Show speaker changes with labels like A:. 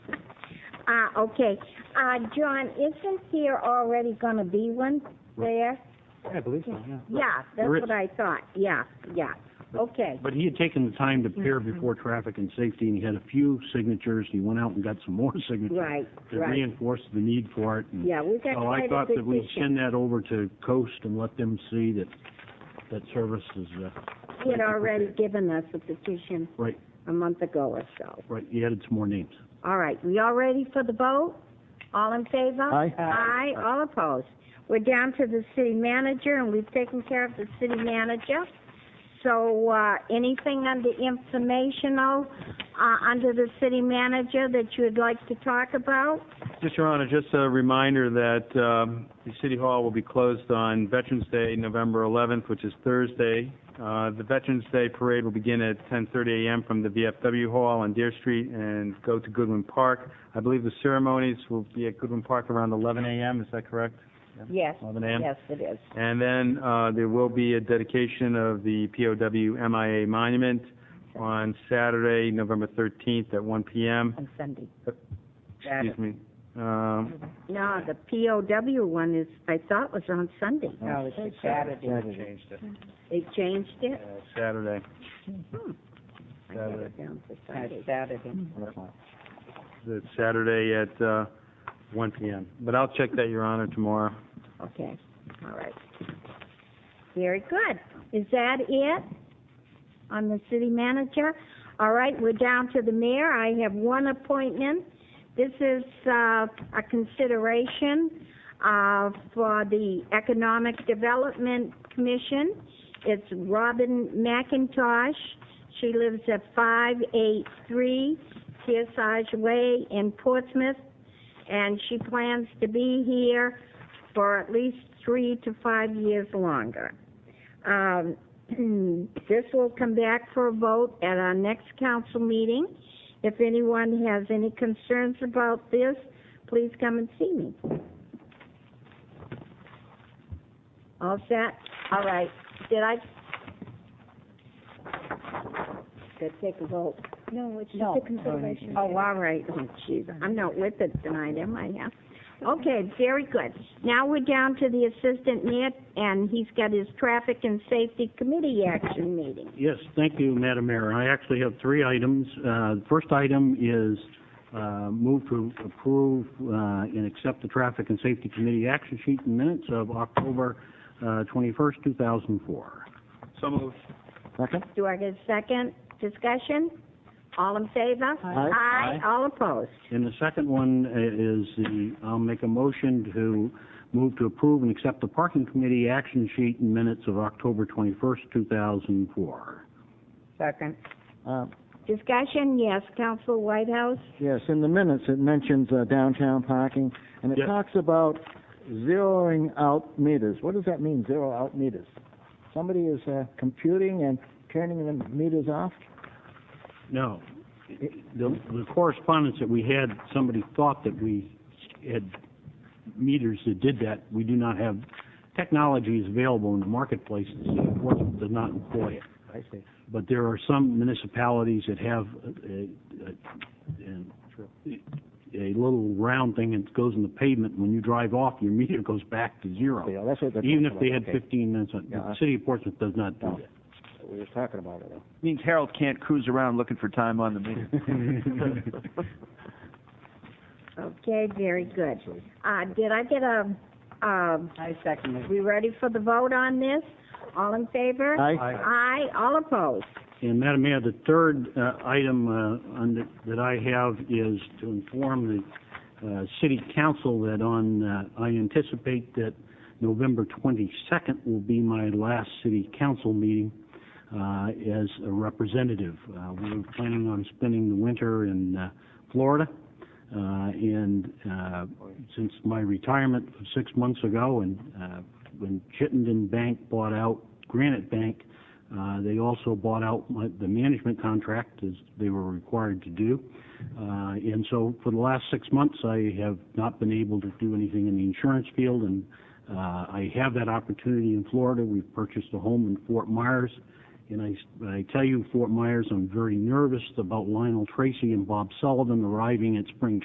A: Uh, okay. Uh, John, isn't there already gonna be one there?
B: Yeah, I believe so, yeah.
A: Yeah, that's
B: There is.
A: what I thought. Yeah, yeah. Okay.
B: But he had taken the time to appear before traffic and safety, and he had a few signatures, and he went out and got some more signatures.
A: Right,
B: To
A: right.
B: reinforce the need for it, and
A: Yeah, we got
B: so I
A: quite a
B: thought that we'd
A: petition.
B: send that over to Coast and let them see that, that service is, uh,
A: He had already given us a petition
B: right,
A: a month ago or so.
B: right, he added some more names.
A: All right, we all ready for the vote? All in favor?
B: Aye.
A: Aye, all opposed. We're down to the city manager, and we've taken care of the city manager. So, uh, anything under informational, uh, under the city manager that you would like to talk about?
C: Just, Your Honor, just a reminder that um, the City Hall will be closed on Veterans Day, November 11th, which is Thursday. Uh, The Veterans Day Parade will begin at 10:30 a.m. from the VFW Hall on Deer Street and go to Goodwin Park. I believe the ceremonies will be at Goodwin Park around 11 a.m., is that correct?
A: Yes,
C: 11 a.m.?
A: yes, it is.
C: And then uh, there will be a dedication of the POW MIA Monument on Saturday, November 13th at 1 p.m.
A: On Sunday.
C: Excuse me. Um,
A: No, the POW one is, I thought was on Sunday.
D: No, it's a Saturday.
A: They changed it?
C: uh, Saturday.
A: I got it down for
D: It's
A: Sunday.
D: Saturday.
C: It's Saturday at uh, 1 PM. But I'll check that, Your Honor, tomorrow.
A: Okay, all right. Very good. Is that it on the city manager? All right, we're down to the mayor. I have one appointment. This is, uh, a consideration, uh, for the Economic Development Commission. It's Robin McIntosh. She lives at five eight three Kearsarge Way in Portsmouth, and she plans to be here for at least three to five years longer. Um, this will come back for a vote at our next council meeting. If anyone has any concerns about this, please come and see me. All set? All right. Did I? Did I take a vote?
E: No, it's just
D: No.
E: a consideration.
A: Oh, all right. Oh, jeez, I'm not with it tonight, am I, yeah? Okay, very good. Now we're down to the assistant mayor, and he's got his traffic and safety committee action meeting.
B: Yes, thank you, Madam Mayor. I actually have three items. Uh, The first item is uh, move to approve uh, and accept the Traffic and Safety Committee action sheet and minutes of October uh, 21st, 2004.
C: So moved.
B: Second.
A: Do I get a second discussion? All in favor?
B: Aye.
A: Aye, all opposed.
B: And the second one i- is the, I'll make a motion to move to approve and accept the Parking Committee action sheet and minutes of October 21st, 2004.
D: Second.
F: Uh,
A: Discussion, yes, Council Whitehouse?
F: Yes, in the minutes, it mentions uh, downtown parking, and it
B: Yes.
F: talks about zeroing out meters. What does that mean, zero out meters? Somebody is uh, computing and turning the meters off?
B: No. The the correspondence that we had, somebody thought that we had meters that did that. We do not have, technology is available in the marketplace, the city of Portsmouth does not employ it.
F: I see.
B: But there are some municipalities that have a, a- a, a little round thing that goes in the pavement. When you drive off, your meter goes back to
F: Okay,
B: zero,
F: well, that's what they're
B: even if
F: talking
B: they
F: about.
B: had
F: Okay.
B: fifteen minutes on.
F: Yeah,
B: The
F: I-
B: city of Portsmouth does not do
F: No.
B: that.
F: We were talking about it, though.
G: Means Harold can't cruise around looking for time on the meeting.
A: Okay, very good. Uh, did I get a, um,
D: I second it.
A: we ready for the vote on this? All in favor?
F: Aye.
A: Aye, all opposed.
B: And Madam Mayor, the third uh, item uh, on the- that I have is to inform the uh, city council that on, uh, I anticipate that November 22nd will be my last city council meeting uh, as a representative. Uh, We're planning on spending the winter in uh, Florida, Uh, and uh, since my retirement six months ago, and uh, when Chittenden Bank bought out Granite Bank, uh, They also bought out my- the management contract, as they were required to do. Uh, And so for the last six months, I have not been able to do anything in the insurance field, and uh, I have that opportunity in Florida. We've purchased a home in Fort Myers, and I I tell you, Fort Myers, I'm very nervous about Lionel Tracy and Bob Sullivan arriving at spring